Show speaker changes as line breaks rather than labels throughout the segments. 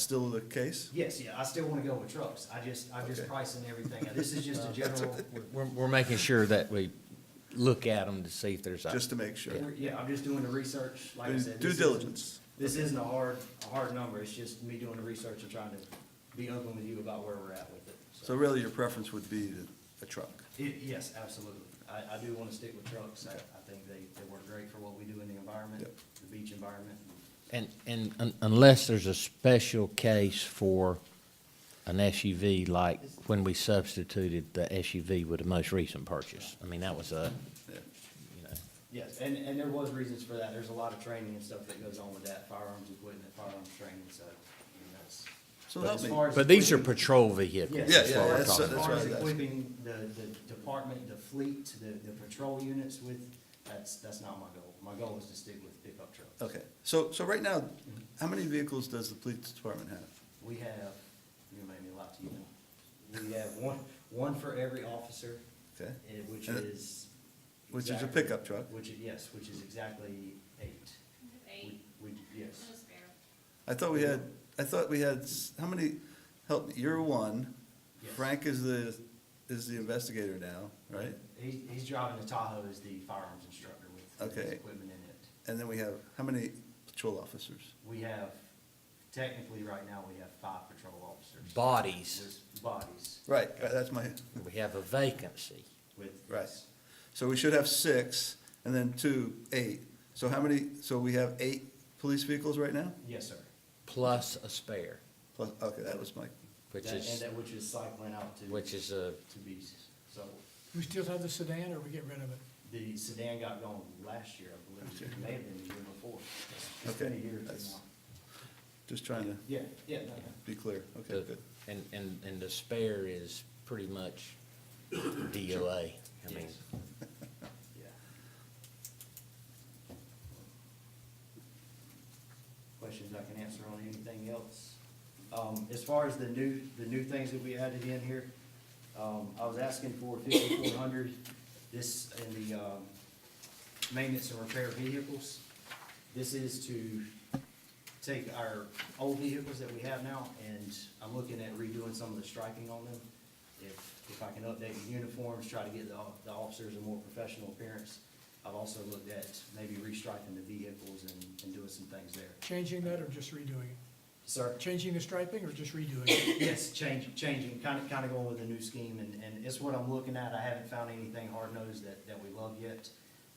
Still the case?
Yes, yeah, I still wanna go with trucks, I just, I'm just
Okay.
pricing everything, out. this is just a general,
We're, we're making sure that we look at them to see if there's. a-
Just to make sure.
we're- yeah, I'm just doing the research, like I
Due-
said.
Due
this isn't-
diligence.
This isn't a hard, a hard number, it's just me doing the research and trying to be open with you about where we're at with it.
So really, your preference would be the- a truck.
It, yes, absolutely, I, I do wanna stick with trucks, I, I think they, they work great for what we do in the environment,
Yep.
the beach environment.
And, and un- unless there's a special case for an SUV, like when we substituted the SUV with the most recent purchase. I mean, that was a,
Yeah.
you know,
Yes, and, and there was reasons for that, there's a lot of training and stuff that goes on with that, firearms equipment, firearms training, so, I mean, that's.
So
But
help
as
me.
far as
but these are
equipment-
patrol vehicles.
Yes,
Yeah,
as
yeah,
far
yeah,
as-
that's-
As
that's
far
right,
as
that's-
equipping the, the department, the fleet, the, the patrol units with, that's, that's not my goal. My goal is to stick with pickup trucks.
Okay, so, so right now, how many vehicles does the police department have?
We have, you made me lie to you now. We have one, one for every officer,
Okay,
eh, which
And-
is.
Uh, which is a
exactly-
pickup truck.
Which, is yes, which is exactly eight.
Eight,
We, we- yes.
no spare.
I thought we had, I thought we had, s- how many, help, me, you're one.
Yes.
Frank is the, is the investigator now, right?
He, he's driving the Tahoe as the firearms instructor with his
Okay.
equipment in it.
And then we have, how many patrol officers?
We have, technically, right now, we have five patrol officers.
Bodies,
With bodies,
Right, right, that's my,
we have a vacancy.
with.
right. So we should have six, and then two, eight. So how many, so we have eight police vehicles right now?
Yes, sir.
plus a spare,
Plus, okay, that was my,
which
That- And
is,
that which is cycling out to.
which is uh, a,
To beasts. So
We still have the sedan, or we get rid of it?
the sedan got gone last year, I believe. It may have been the year before. It's been a
Okay,
year or two
that's-
now.
just trying to
Yeah, yeah, no, no.
be clear. Okay,
the-
good.
and, and, and the spare is pretty much DOA. I mean,
Yes. Yeah. Questions I can answer on anything else? Um, as far as the new, the new things that we added in here, um, I was asking for fifty-four hundred, this in the, um, maintenance and repair vehicles. This is to take our old vehicles that we have now, and I'm looking at redoing some of the striking on them. If, if I can update the uniforms, try to get the, the officers a more professional appearance. I've also looked at maybe restriking the vehicles and, and doing some things there.
Changing that or just redoing it?
Sir?
Changing the striping or just redoing it?
Yes, change, changing, kind of, kind of going with a new scheme, and, and it's what I'm looking at, I haven't found anything hard-nosed that, that we love yet.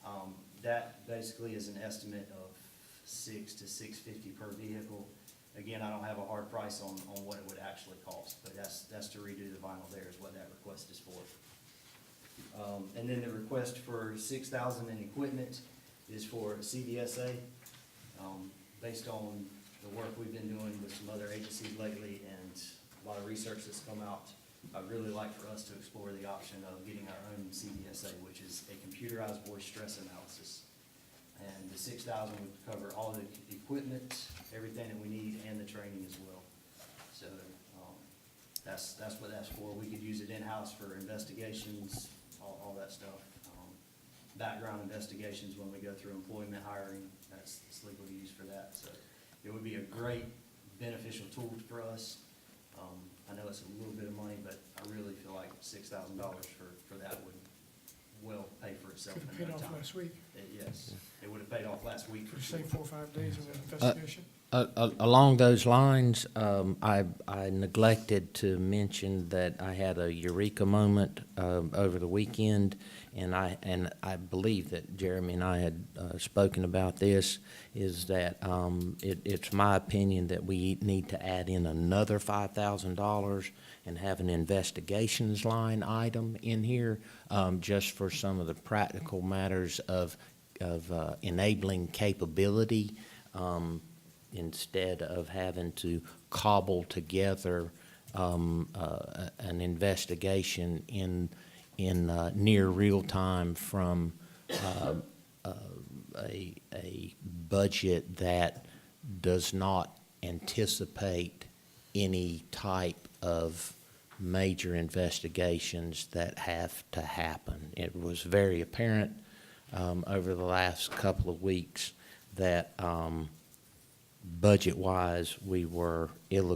Um, that basically is an estimate of six to six fifty per vehicle. Again, I don't have a hard price on, on what it would actually cost, but that's, that's to redo the vinyl there is what that request is for. Um, and then the request for six thousand in equipment is for CDSA. Um, based on the work we've been doing with some other agencies lately and a lot of research that's come out, I'd really like for us to explore the option of getting our own CDSA, which is a computerized voice stress analysis. And the six thousand would cover all the equipment, everything that we need, and the training as well. So, um, that's, that's what that's for. We could use it in-house for investigations, all, all that stuff. Um, Background investigations when we go through employment hiring, that's, it's legal to use for that, so it would be a great beneficial tool for us. Um, I know it's a little bit of money, but I really feel like six thousand dollars for, for that would well pay for itself
Could have
in
paid
no
off
time.
last week
It- Yes, it would have paid off last week.
for, say, four or five days of an investigation.
A- a- Along those lines, um, I I neglected to mention that I had a eureka moment um, over the weekend, and I, and I believe that Jeremy and I had uh, spoken about this, is that um, it- it's my opinion that we need to add in another $5,000 and have an investigations line item in here, um, just for some of the practical matters of of uh, enabling capability um, instead of having to cobble together um, uh, a- an investigation in, in uh, near real time from uh, uh, a, a budget that does not anticipate any type of major investigations that have to happen. It was very apparent um, over the last couple of weeks that um, budget-wise, we were ill